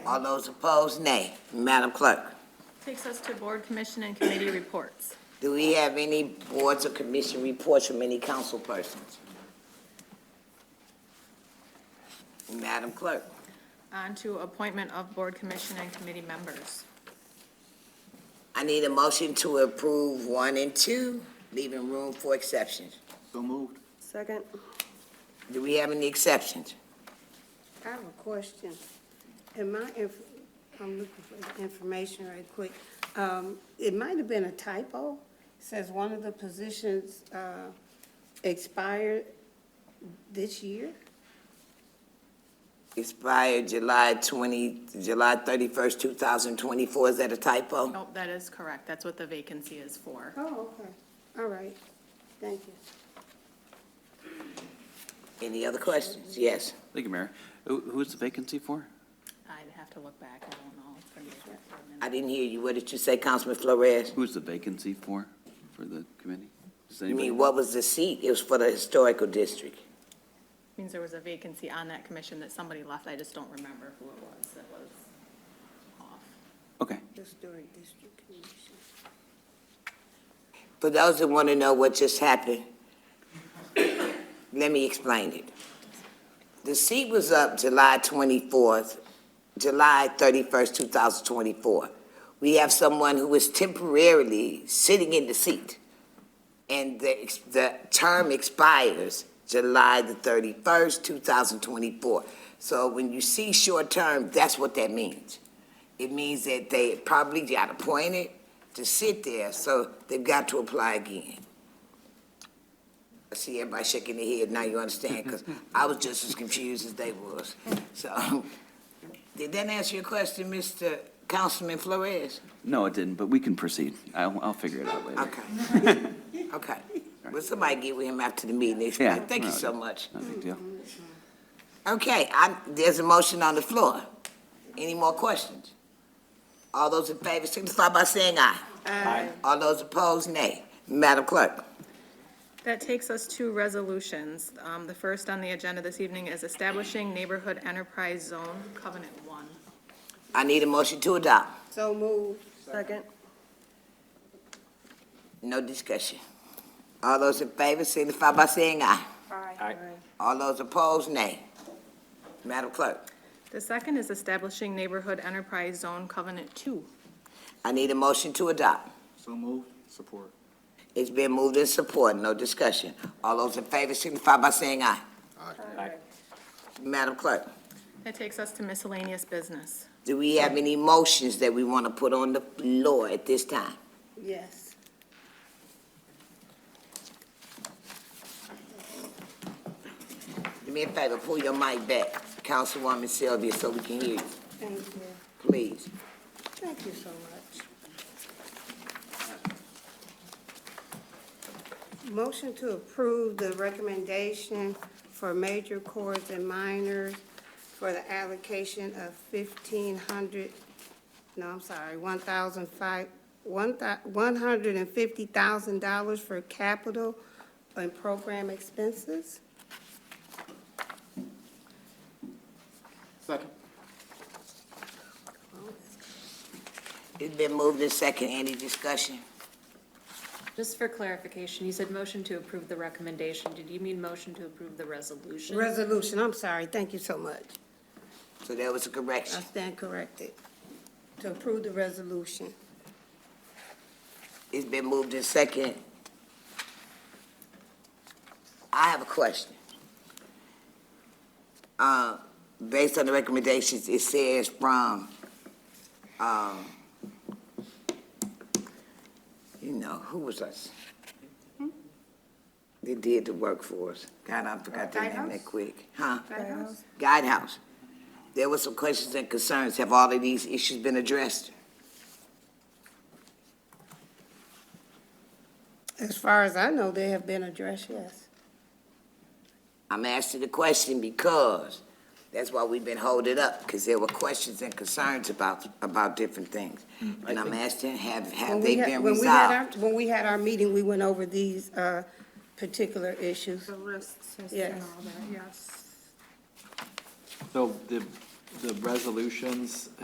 All those opposed, nay. Madam Clerk, Takes us to board, commission, and committee reports. do we have any boards or commission reports from any council persons? Madam Clerk, On to appointment of board, commission, and committee members. I need a motion to approve one and two, leaving room for exceptions. So moved. Second. Do we have any exceptions? I have a question. Am I, if, I'm looking for the information right quick. Um, it might have been a typo. It Says one of the positions, uh, expired this year? Expired July 20, July 31st, 2024, is that a typo? Nope, Oh, that is correct. That's what the vacancy is for. Oh, okay. All right. Thank you. Any other questions? Yes. Thank you, Mayor. Who, who is the vacancy for? I'd have to look back. I don't know. for sure. I didn't hear you. What did you say, Councilman Flores? Who is the vacancy for, for the committee? Does You anybody? mean, what was the seat? It was for the historical district. Means there was a vacancy on that commission that somebody left. I just don't remember who it was that was off. Okay. Historic District Commission. For those that want to know what just happened, let me explain it. The seat was up July 24th, July 31st, 2024. We have someone who is temporarily sitting in the seat, and the, ex- the term expires July the 31st, 2024. So when you see short term, that's what that means. It means that they probably got appointed to sit there, so they've got to apply again. I see everybody shaking their head, now you understand, because I was just as confused as they was. So, did that answer your question, Mr. Councilman Flores? No, it didn't, but we can proceed. I'll, I'll figure it out later. Okay. Okay. Well, somebody get with him after the meeting, Yeah, explain, thank you no, so much. No big deal. Okay, I, there's a motion on the floor. Any more questions? All those in favor signify by saying aye. Aye. All those opposed, nay. Madam Clerk, That takes us to resolutions. Um, The first on the agenda this evening is establishing neighborhood enterprise zone covenant one. I need a motion to adopt. So moved. Second. No discussion. All those in favor signify by saying aye. Aye. All those opposed, nay. Madam Clerk, The second is establishing neighborhood enterprise zone covenant two. I need a motion to adopt. So moved. Support. It's been moved and supported, no discussion. All those in favor signify by saying aye. Aye. Madam Clerk, That takes us to miscellaneous business. do we have any motions that we want to put on the floor at this time? Yes. Do me a favor, pull your mic back, Councilwoman Sylvia, so we can hear you, Thank you. please. Thank you so much. Motion to approve the recommendation for major chords and minors for the allocation of fifteen hundred, no, I'm sorry, one thousand five, one one hundred and fifty thousand dollars for capital and program expenses. Second. It's been moved and second, any discussion? Just for clarification, you said motion to approve the recommendation. Did you mean motion to approve the resolution? Resolution, I'm sorry, thank you so much. So there was a I correction. stand corrected. To approve the resolution. It's been moved and second. I have a question. Uh, based on the recommendations, it says from, um, you know, who was us? They did the work for us. God, I forgot their name that Guidehouse? quick. Huh? Guidehouse? Guidehouse. There were some questions and concerns. Have all of these issues been addressed? As far as I know, they have been addressed, yes. I'm asking the question because that's why we've been holding up, because there were questions and concerns about, about different things. And I'm asking, have, have Mm, When they we had- been when we had resolved? our- When we had our meeting, we went over these uh, particular issues. the lists Yes. and all that, yes. So the, the resolutions